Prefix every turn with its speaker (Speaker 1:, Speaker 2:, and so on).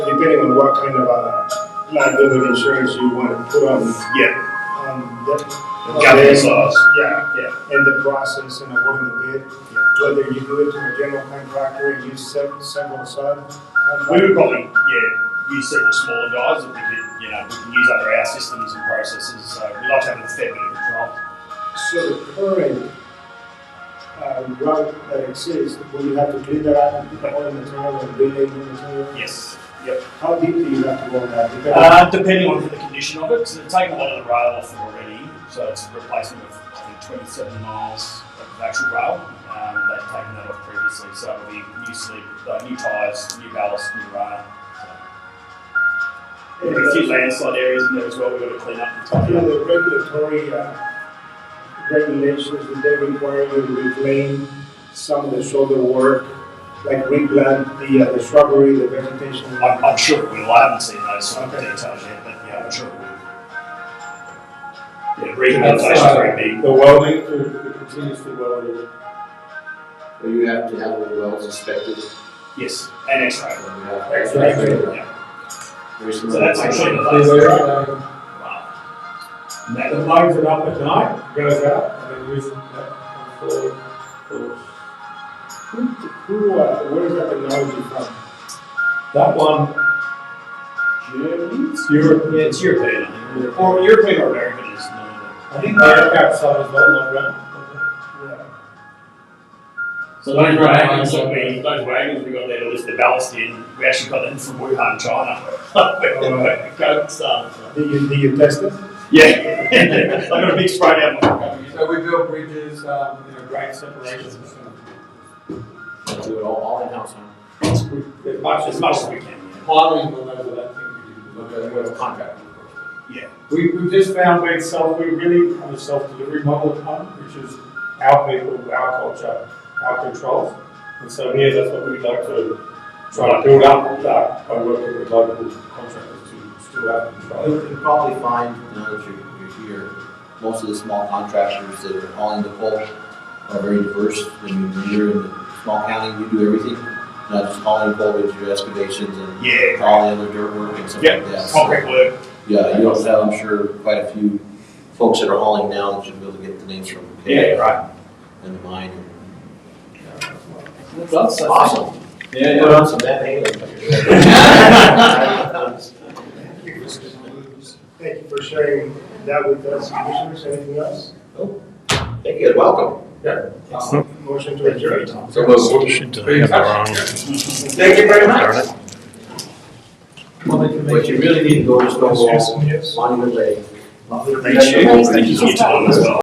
Speaker 1: depending on what kind of uh, liability insurance you want to put on,
Speaker 2: Yeah,
Speaker 1: on that.
Speaker 2: gathering size.
Speaker 1: Yeah, yeah, and the process and awarding the bid, whether you do it to a general contractor and use se- several sub.
Speaker 2: We would probably, yeah, use several smaller guys that we could, you know, we can use under our systems and processes, so we like to have a fair bit of control.
Speaker 1: So the current, uh, route that exists, will you have to bid that out, and put all the material and building material?
Speaker 2: Yes, yep.
Speaker 1: How deep do you have to go on that? Depending on-
Speaker 2: Uh, depending on the condition of it, because it's taken a lot of the rail off already, so it's a replacement of, I think, twenty-seven miles of actual rail. Um, they've taken that off previously, so it'll be new sleep, uh, new tyres, new ballast, new rail. We've got a few landslide areas in there as well, we've got to clean up and
Speaker 1: You
Speaker 2: tidy
Speaker 1: know,
Speaker 2: up.
Speaker 1: the regulatory uh, regulations, would they require you to reclaim some of the shoulder work, like replant the uh, the shrubbery, the vegetation?
Speaker 2: I'm, I'm sure it will. I haven't seen those sort of
Speaker 1: Okay.
Speaker 2: details yet, but yeah, I'm sure it will. Yeah, uh, rehabilitation is very big.
Speaker 3: The welding, to to continuously welding.
Speaker 4: Or you have to have the wells inspected.
Speaker 2: Yes, and X-ray.
Speaker 4: uh,
Speaker 2: Yeah.
Speaker 4: There's
Speaker 2: So that's actually the
Speaker 3: They
Speaker 2: last.
Speaker 3: wear, uh,
Speaker 2: Wow.
Speaker 3: The
Speaker 2: That-
Speaker 3: lights are up at night, goes um, out, and then we, uh, forward, forward.
Speaker 1: Who, who, uh, where is that technology from?
Speaker 3: That one,
Speaker 1: Germany?
Speaker 3: it's Europe,
Speaker 2: Yeah, it's European. I think. Or European or American is normal.
Speaker 3: I think the aircraft side is not long run.
Speaker 1: Yeah.
Speaker 2: So those wagons that we, those wagons we got there to lift the ballast in, we actually got them from Wuhan, China. Go start.
Speaker 1: Did you, did you test it?
Speaker 2: Yeah. I got a big spray down my
Speaker 3: So we build bridges, um, you know, great separations,
Speaker 4: Do it all, all in-house, huh?
Speaker 3: as
Speaker 2: much,
Speaker 3: much
Speaker 2: as
Speaker 3: as
Speaker 2: much as we can.
Speaker 3: Hiring will know that I think we do.
Speaker 4: Okay, we have a contract.
Speaker 2: Yeah.
Speaker 3: We, we just found we self, we really have a self-delivery model at home, which is our people, our culture, our controls. And so here, that's what we'd like to try to build up, that by working with local contractors to still have
Speaker 4: You
Speaker 3: control.
Speaker 4: can probably find, now that you're, you're here, most of the small contractors that are hauling the coal are very diverse. I mean, when you're in the small county, you do everything, not just hauling coal, but you do excavations and
Speaker 2: Yeah.
Speaker 4: all the other dirt work and stuff like that.
Speaker 2: Yep,
Speaker 4: So,
Speaker 2: concrete work.
Speaker 4: Yeah, you also have, I'm sure, quite a few folks that are hauling now that you'll be able to get the names from.
Speaker 2: right.
Speaker 4: And the mine. and, uh,
Speaker 2: Awesome.
Speaker 4: Yeah. Put on some bad
Speaker 1: Thank you for sharing that with us, commissioners, anything else?
Speaker 4: Thank you, welcome.
Speaker 1: Motion to adjourn.
Speaker 4: So moved.
Speaker 5: Should I have the wrong?
Speaker 4: Thank you very much. What you really need to go to
Speaker 1: Yes,
Speaker 4: Stonewall
Speaker 1: yes.
Speaker 4: Monument Lake.
Speaker 2: Thank you for your time as well.